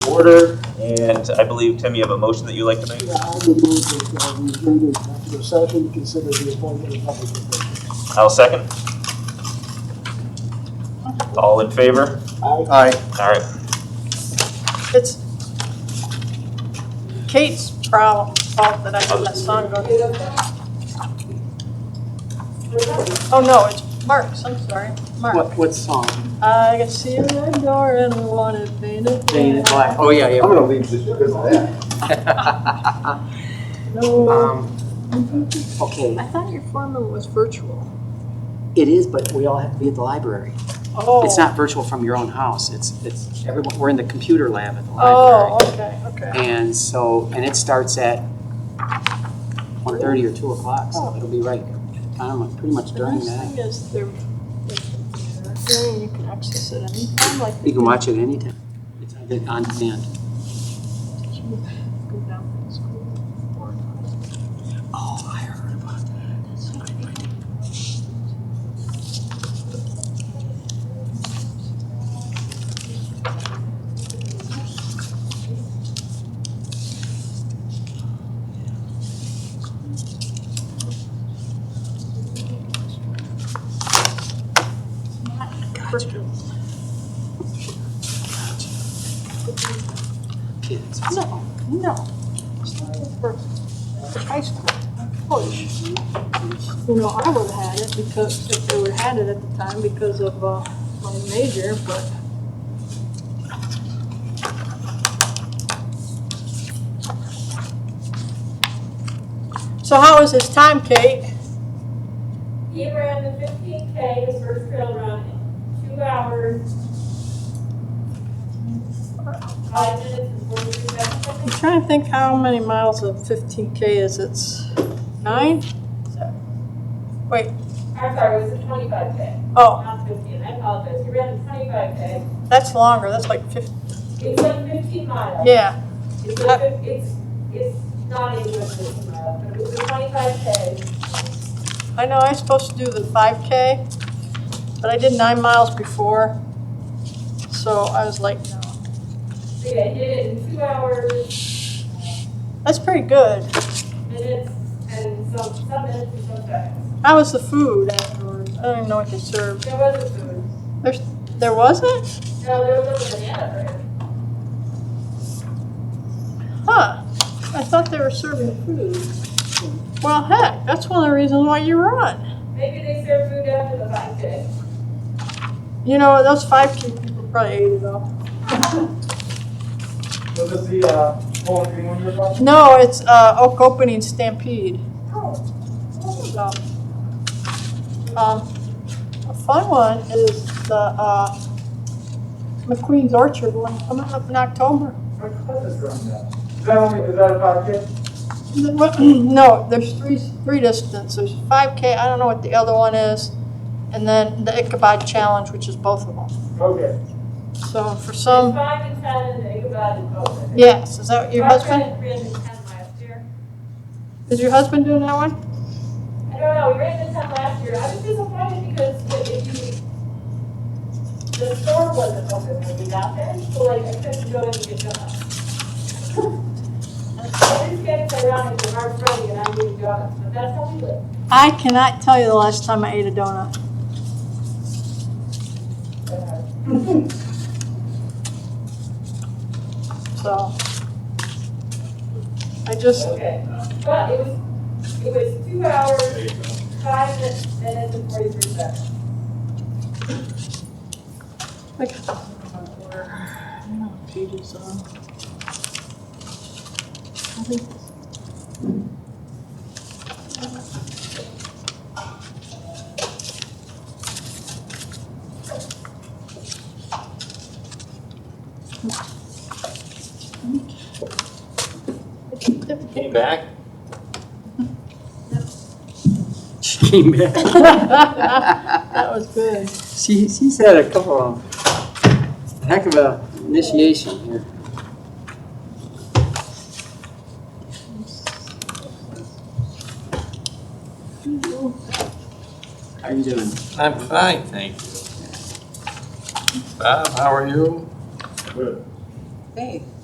order, and I believe, Tim, you have a motion that you'd like to make? Yeah, I would move that uh, we adjourn to executive session, to consider the appointment of public officials. I'll second. All in favor? Aye. All right. It's Kate's problem, fault that I had my son go. Oh, no, it's Mark's, I'm sorry, Mark. What, what song? I got see you in the door and wanted painted Jane and Black. Oh, yeah, I'm gonna leave just because of that. yeah. No, Um, Okay, I thought your foreman was virtual. it is, but we all have to be at the library. Oh. It's not virtual from your own house. It's, it's, everyone, we're in the computer lab at the Oh, library. okay, okay. And so, and it starts at 1:30 or 2 o'clock, so it'll be right, kind of pretty much The during Oh. nice that. thing is they're, they're, you can access it anytime, like. You can watch it anytime. It's on de- on demand. Go down to school or not. Oh, I heard about that. Virtual. Kids. No, no. For high school, push. You know, I would have had it because, if they would have had it at the time because of, uh, my major, but. So how was his time, Kate? He ran the fifteen K, his first trail run, in two hours. Five minutes and forty-three I'm seconds. trying to think how many miles of fifteen K is it? Nine? I'm sorry, it was a twenty-five K, Oh, not fifteen, I apologize. He ran the twenty-five K. that's longer, that's like fifteen, It's like fifteen miles. yeah. It's a fif- it's, it's not even a fifteen mile, but it was a twenty-five K. I know, I was supposed to do the five K, but I did nine miles before. So I was like, no, So yeah, he did it in two hours, that's pretty good. minutes, and some, some minutes and some seconds. How was the food afterwards? I don't even know what they served. There was a food. There wasn't? No, there was a banana bread. Huh, I thought they were serving food. Well, heck, that's one of the reasons why you run. Maybe they serve food after the five day. You know, those five K people probably ate it all. So does the, uh, whole thing on your phone? No, it's uh, Oak Opening Stampede. So, um, a fun one is the uh, McQueen's Orchard one coming up in October. What cut is from that? Is that only, is that a pocket? No, there's three three distances. There's 5K. I don't know what the other one is, and then the Ichabod Challenge, which is both of them. Okay. So for some, Five and ten and they go out and vote. yes, is that your husband? I ran the ten last year. Is your husband doing that one? I don't know, we ran the ten last year. I was disappointed because if if you, the store wasn't open when we got there, so like I couldn't go in and get donuts. I just get it around and I'm running and I'm getting donuts, but that's how we live. I cannot tell you the last time I ate a donut. So. I just, Okay, but it was, it was two hours, five minutes and forty-three seconds. like. Pages on. I think Came back? She came back. That was good. She, she's had a couple of, heck of a initiation here. How you doing? I'm fine, thank you. Bob, how are you? Hey.